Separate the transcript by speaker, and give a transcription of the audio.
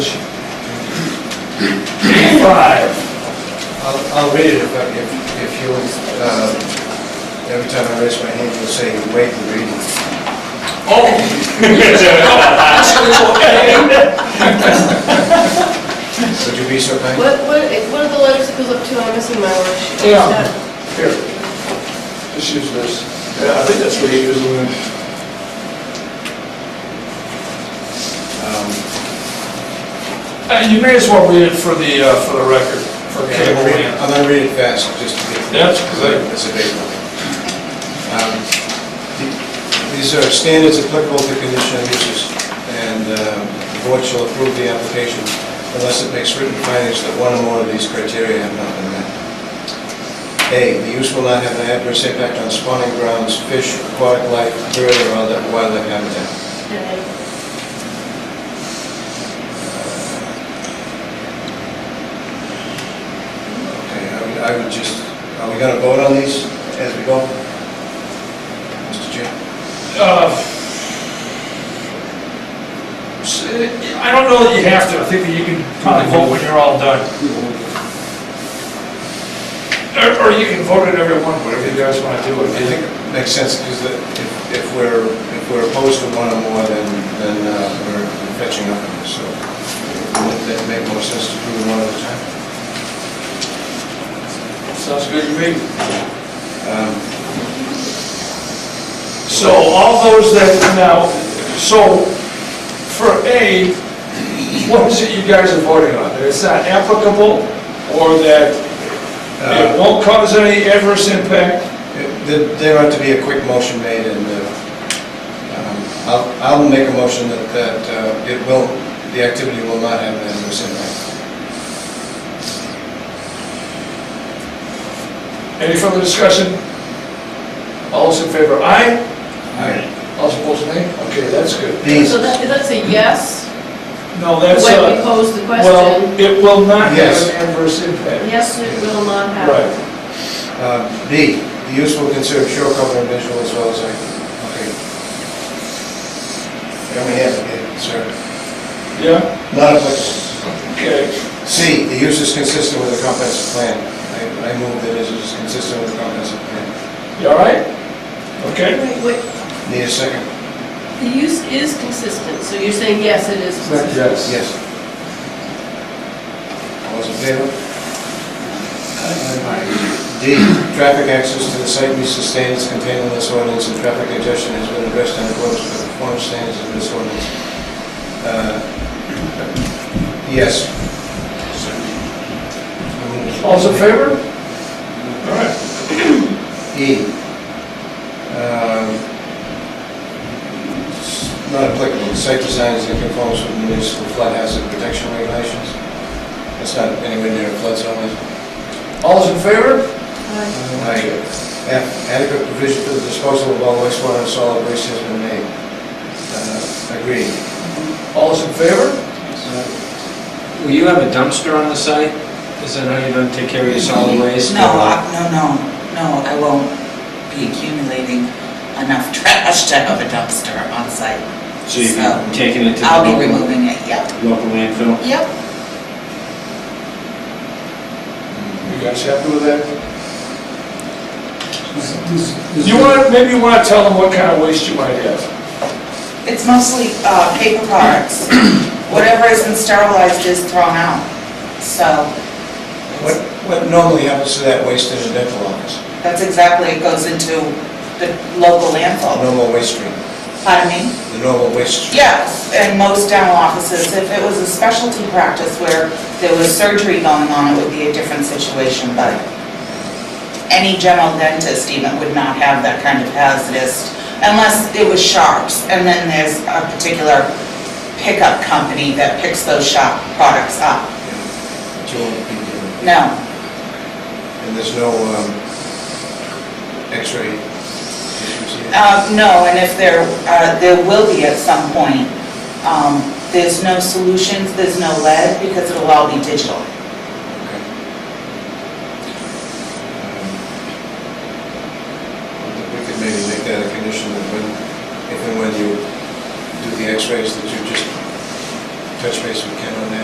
Speaker 1: Five.
Speaker 2: I'll, I'll read it if, I- if if you, uh, every time I raise my hand, you'll say, wait and read it.
Speaker 3: Oh!
Speaker 2: Would you be so kind?
Speaker 4: What, what, what are the letters it goes up to? I'm missing my worksheet.
Speaker 1: Yeah. Here. Just use this. Yeah, I think that's what you use when...
Speaker 2: Um,
Speaker 3: Uh, You may as well read it for the, uh, for the record, for
Speaker 2: Okay,
Speaker 3: cable
Speaker 2: I'm reading-
Speaker 3: land.
Speaker 2: I'm gonna read it fast, just to get...
Speaker 3: Yes, good.
Speaker 2: It's a big one. Um, the- These are standards applicable to conditional uses, and um, the board shall approve the application unless it makes written findings that one or more of these criteria have not been met. A, the use will not have an adverse impact on spawning grounds, fish, aquatic life, bird, or other wildlife habitat.
Speaker 4: Okay.
Speaker 2: Okay, I would- I would just, are we gonna vote on these as we go? Mr. Chair?
Speaker 3: Uh, s- I don't know that you have to, I think that you can probably vote when you're all done. Or- Or you can vote at every one, whatever you guys want to do.
Speaker 2: I think it makes sense, because if, if we're, if we're opposed to one or more, then, then uh, we're fetching up, on this. so wouldn't that make more sense to do one at a time?
Speaker 3: Sounds good to me.
Speaker 2: Um,
Speaker 3: So all those that, now, so for A, what is it you guys are voting on? That it's not applicable or that it
Speaker 2: uh,
Speaker 3: won't cause any adverse impact?
Speaker 2: it- there- There ought to be a quick motion made, and uh, um, I'll, I'll make a motion that, that uh, it will, the activity will not have an adverse impact.
Speaker 3: Any further discussion? All those in favor, aye?
Speaker 2: Aye.
Speaker 3: All those opposed, nay? Okay, that's good.
Speaker 2: These,
Speaker 4: So that, that's a yes,
Speaker 3: No,
Speaker 4: the
Speaker 3: that's,
Speaker 4: way we
Speaker 3: uh,
Speaker 4: posed the question.
Speaker 3: well, it will not have
Speaker 2: Yes.
Speaker 3: an adverse impact.
Speaker 4: Yes, it will not happen.
Speaker 3: Right.
Speaker 2: uh, B, the use will conserve shore cover and visual as well as, I- okay. Come ahead, okay, sir.
Speaker 3: Yeah,
Speaker 2: Not applicable.
Speaker 3: okay.
Speaker 2: C, the use is consistent with the comprehensive plan. I- I move that it is consistent with the comprehensive plan.
Speaker 3: You all right? Okay?
Speaker 4: Wait, wait,
Speaker 2: Need a second?
Speaker 4: the use is consistent, so you're saying yes, it is consistent.
Speaker 3: Yes.
Speaker 2: Yes. All those in favor? D, traffic access to the site meets the standards contained in this ordinance, and traffic congestion has been addressed in accordance with the form standards of this ordinance. Uh, Yes.
Speaker 3: All those in favor? All right.
Speaker 2: E. um, it's Not applicable, The site design is in conformance with municipal flood hazard protection regulations. It's not anywhere near a flood zone. is it?
Speaker 3: All those in favor?
Speaker 4: Aye.
Speaker 2: Aye. F, adequate provision for the disposal of all wastewater and solid waste has been made. Uh, Agreed.
Speaker 3: All those in favor?
Speaker 5: Will you have a dumpster on the site? Is that how you're going to take care of your solid waste?
Speaker 6: No, I- no, no, no, I won't be accumulating enough trash to have a dumpster on site.
Speaker 5: So you're taking it to the
Speaker 6: I'll be
Speaker 5: local
Speaker 6: removing it, yep.
Speaker 5: local landfill?
Speaker 6: Yep.
Speaker 3: You guys happy with that? You
Speaker 7: You want
Speaker 3: want, maybe you want to tell them what kind of waste you might have.
Speaker 6: It's mostly uh, paper products. Whatever isn't sterilized is thrown out. So
Speaker 2: What what normally happens to that waste in a dental office?
Speaker 6: that's exactly, it goes into the local
Speaker 2: The
Speaker 6: landfill.
Speaker 2: normal waste stream,
Speaker 6: Pardon me?
Speaker 2: the normal waste stream.
Speaker 6: Yes, and most dental offices, if it was a specialty practice where there was surgery going on, it would be a different situation, but any general dentist even would not have that kind of hazardous, unless it was sharps, and then there's a particular pickup company that picks those sharp products up.
Speaker 2: But you won't be doing-
Speaker 6: No,
Speaker 2: And there's no um, x-ray issues here?
Speaker 6: Uh, No, and if there, uh, there will be at some point, um, there's no solutions, there's no lead, because it'll all be digital.
Speaker 2: Um, We could maybe make that a condition that when, if and when you do the x-rays, that you just touch base with Ken on that.